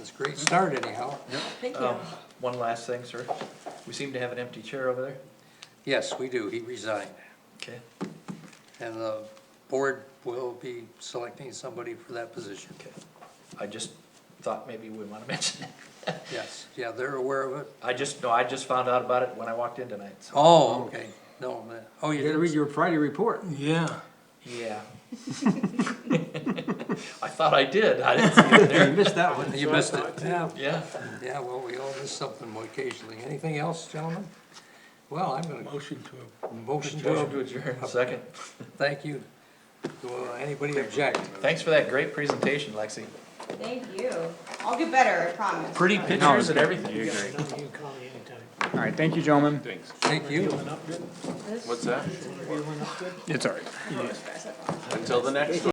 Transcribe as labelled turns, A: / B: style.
A: It's a great start anyhow.
B: Thank you.
C: Um, One last thing, sir. We seem to have an empty chair over there.
A: Yes, we do. He resigned.
C: Okay.
A: And the board will be selecting somebody for that position.
C: Okay. I just thought maybe we want to mention it.
A: Yes, yeah, they're aware of it.
C: I just, no, I just found out about it when I walked in tonight, so,
A: Oh, okay. No, man. oh, you
D: You gotta read
A: did
D: your Friday report.
E: Yeah,
C: yeah. I thought I did. I didn't see it
D: You
C: there.
D: missed that one.
A: You missed it. Yeah,
C: Yeah.
A: yeah, well, we all miss something occasionally. Anything else, gentlemen? Well, I'm gonna
E: motion to,
A: motion
C: Motion to
A: to,
C: adjourn. Second.
A: thank you. Will anybody object?
C: Thanks for that great presentation, Lexi.
B: Thank you. I'll get better, I promise.
C: Pretty pictures and everything.
F: All right, thank you, gentlemen.
A: Thank you.
B: This-
G: What's that?
F: It's all right.
G: Until the next one.